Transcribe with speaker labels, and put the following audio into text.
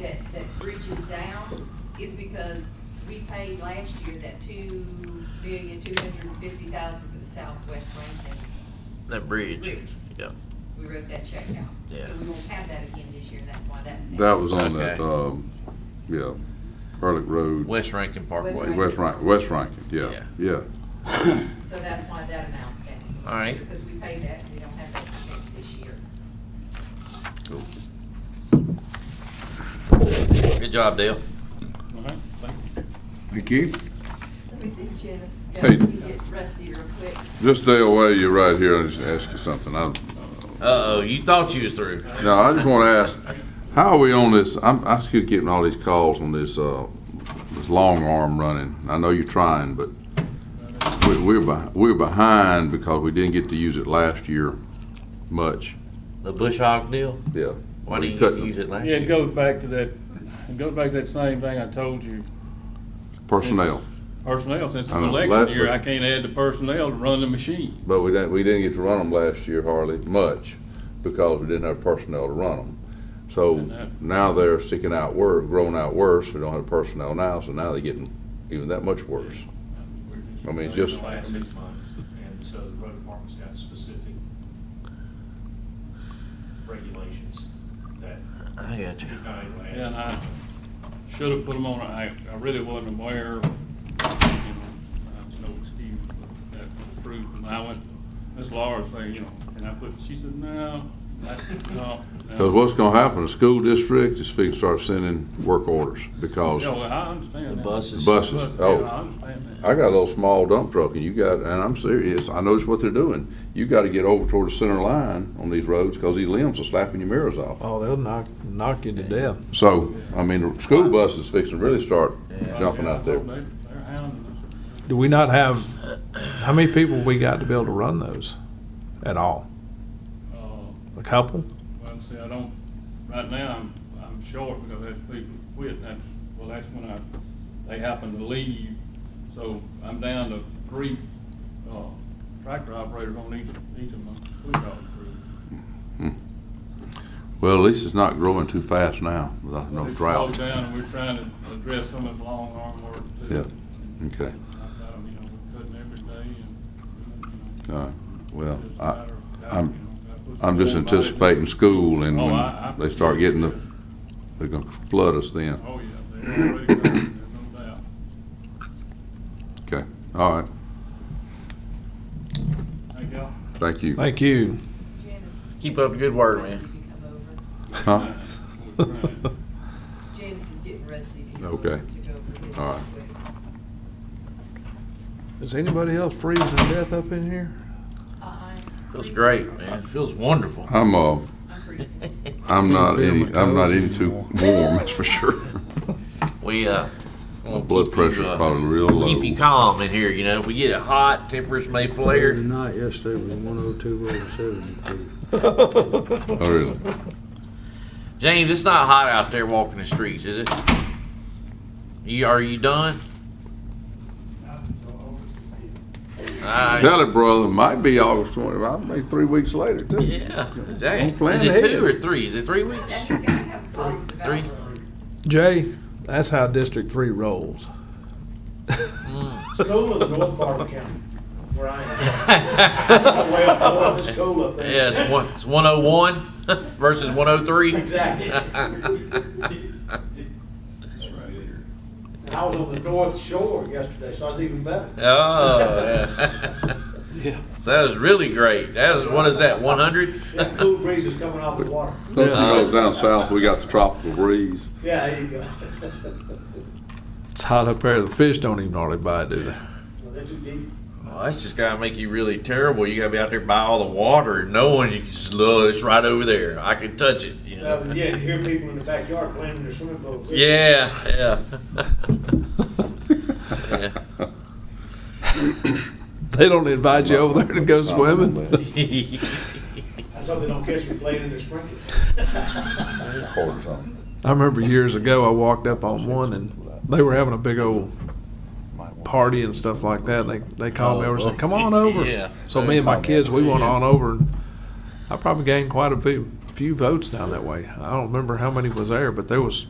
Speaker 1: that, that bridge is down is because we paid last year that two million, two hundred and fifty thousand for the Southwest Rankin.
Speaker 2: That bridge.
Speaker 1: Bridge.
Speaker 2: Yeah.
Speaker 1: We wrote that check out.
Speaker 2: Yeah.
Speaker 1: So we won't have that again this year, and that's why that's. down.
Speaker 3: That was on that,
Speaker 2: Okay.
Speaker 3: um, yeah, Ehrlich Road,
Speaker 2: West Rankin Parkway.
Speaker 1: Rankin.
Speaker 3: West Rankin, West Rankin, yeah, yeah.
Speaker 1: So that's why that amount's down.
Speaker 2: All right.
Speaker 1: Because we paid that, we don't have that expense this year.
Speaker 2: Cool. Good job, Dale.
Speaker 3: Thank you.
Speaker 1: Let me see if Janice is
Speaker 3: Hey.
Speaker 1: going to get rusty real quick.
Speaker 3: Just stay away, you're right here, I just ask you something, I,
Speaker 2: Uh-oh, you thought you was through.
Speaker 3: no, I just wanna ask, how are we on this, I'm, I keep getting all these calls on this, uh, this long arm running, I know you're trying, but we, we're behind, we're behind because we didn't get to use it last year much,
Speaker 2: The Bush Hog deal?
Speaker 3: yeah.
Speaker 2: Why
Speaker 3: We
Speaker 2: didn't you get
Speaker 3: couldn't-
Speaker 2: to use it last
Speaker 4: Yeah,
Speaker 2: year?
Speaker 4: it goes back to that, it goes back to that same thing I told you,
Speaker 3: Personnel,
Speaker 4: personnel, since it's
Speaker 3: I know,
Speaker 4: election
Speaker 3: let-
Speaker 4: year, I can't add the personnel to run the machine.
Speaker 3: but we didn't, we didn't get to run them last year hardly much because we didn't have personnel to run them. So
Speaker 4: I know.
Speaker 3: now they're sticking out worse, growing out worse, we don't have personnel now, so now they're getting even that much worse. I mean, it's just-
Speaker 5: The last six months, and so the road department's got specific regulations that
Speaker 2: I got you.
Speaker 5: he's not able to add.
Speaker 4: And I should have put them on, I, I really wasn't aware, you know, there's no excuse, but that was approved, and I went, Miss Laura's saying, you know, and I put, she said, no, that's, no. no."
Speaker 3: Cause what's gonna happen, the school district is fixing to start sending work orders because
Speaker 4: Yeah, well, I understand
Speaker 2: The
Speaker 4: that.
Speaker 2: buses.
Speaker 3: buses,
Speaker 4: But, yeah, I
Speaker 3: oh,
Speaker 4: understand that.
Speaker 3: I got a little small dump truck and you got, and I'm serious, I notice what they're doing. You gotta get over toward the center line on these roads, cause these limbs are slapping your mirrors off.
Speaker 6: Oh, they'll knock, knock you to death.
Speaker 3: So, I mean, the school bus is fixing to really start
Speaker 2: Yeah.
Speaker 3: jumping out there. Hmm.
Speaker 4: They- They're hounding us.
Speaker 6: Do we not have, how many people we got to be able to run those at all?
Speaker 4: Uh,
Speaker 6: A couple?
Speaker 4: Well, see, I don't, right now, I'm, I'm short because that's people quit, and that's, well, that's when I, they happen to leave. So I'm down to three, uh, tractor operators on each, each of my school dog crews.
Speaker 3: Well, at least it's not growing too fast now, without no
Speaker 4: They
Speaker 3: drought.
Speaker 4: slowed down, and we're trying to address some of the long arm work too.
Speaker 3: Yeah, okay.
Speaker 4: I've got 'em, you know, cutting every day and, you know.
Speaker 3: All right. Uh, Well,
Speaker 4: just a
Speaker 3: I,
Speaker 4: matter of time,
Speaker 3: I'm-
Speaker 4: you know, gotta put
Speaker 3: I'm just
Speaker 4: some more bodies in.
Speaker 3: anticipating school and
Speaker 4: Oh, I-
Speaker 3: when
Speaker 4: I-
Speaker 3: they start getting the, they're gonna flood us then.
Speaker 4: Oh, yeah, they're already, going, there's no doubt.
Speaker 3: Okay, all right,
Speaker 4: Thank y'all.
Speaker 3: thank you.
Speaker 6: Thank you.
Speaker 1: Janice is.
Speaker 2: Keep up the good work,
Speaker 1: Rusty
Speaker 2: man.
Speaker 1: to come over.
Speaker 3: Huh?
Speaker 4: We're trying.
Speaker 1: Janice is getting rusty. to come
Speaker 3: Okay.
Speaker 1: over to go over this
Speaker 3: All right.
Speaker 1: real quick.
Speaker 6: Is anybody else freezing to death up in here?
Speaker 1: Uh-uh.
Speaker 2: Feels great, man. Feels wonderful.
Speaker 3: I'm, uh,
Speaker 1: I'm freezing.
Speaker 3: I'm not
Speaker 6: feel
Speaker 3: any,
Speaker 6: my
Speaker 3: I'm not
Speaker 6: toes
Speaker 3: any too
Speaker 6: anymore.
Speaker 3: warm, that's for sure.
Speaker 2: We, uh.
Speaker 3: My
Speaker 2: gonna
Speaker 3: blood
Speaker 2: keep you,
Speaker 3: pressure's
Speaker 2: uh,
Speaker 3: probably real low.
Speaker 2: Keep you calm in here, you know. If we get it hot, tempers may flare.
Speaker 7: Not yesterday, it was one oh two over seventy-two.
Speaker 3: Oh, really?
Speaker 2: James, it's not hot out there walking the streets, is it? You, are you done? Alright.
Speaker 3: Tell it, brother, might be August twenty, I may be three weeks later too.
Speaker 2: Yeah,
Speaker 3: Don't
Speaker 2: exactly.
Speaker 3: plan
Speaker 2: Is it
Speaker 3: ahead.
Speaker 2: two or three? Is it three weeks?
Speaker 1: He's gonna have a positive
Speaker 2: Three.
Speaker 1: outlook.
Speaker 6: Jay, that's how District Three rolls.
Speaker 5: School in North Barber County, where I am. Way up north is school up there.
Speaker 2: Yeah, it's one, it's one oh one versus one oh three.
Speaker 5: Exactly. I was on the North Shore yesterday, so I was even better.
Speaker 2: Oh, yeah. So that was really great. That was, what is that, one hundred? Oh,
Speaker 5: That cool breeze is coming off the water.
Speaker 3: Don't you know, down south, we got the tropical breeze.
Speaker 5: Yeah, there you go.
Speaker 6: It's hot up there. The fish don't even hardly bite, do they?
Speaker 5: Well, They're too deep.
Speaker 2: Well, that's just gotta make you really terrible. You gotta be out there by all the water, knowing you can just, look, it's right over there. I can touch it, you
Speaker 5: Uh,
Speaker 2: know?
Speaker 5: Yeah, you hear people in the backyard playing in their swimming pools.
Speaker 2: Yeah, yeah.
Speaker 6: They don't invite you over there to go swimming.
Speaker 2: Yeah.
Speaker 5: I hope they don't catch me playing in their sprinklers.
Speaker 3: Or something.
Speaker 6: I remember years ago, I walked up on one and they were having a big old party and stuff like that. They, they called me over and said, come on over.
Speaker 2: Yeah.
Speaker 6: So me and my kids, we went on over and I probably gained quite a few, few votes down that way. I don't remember how many was there, but there was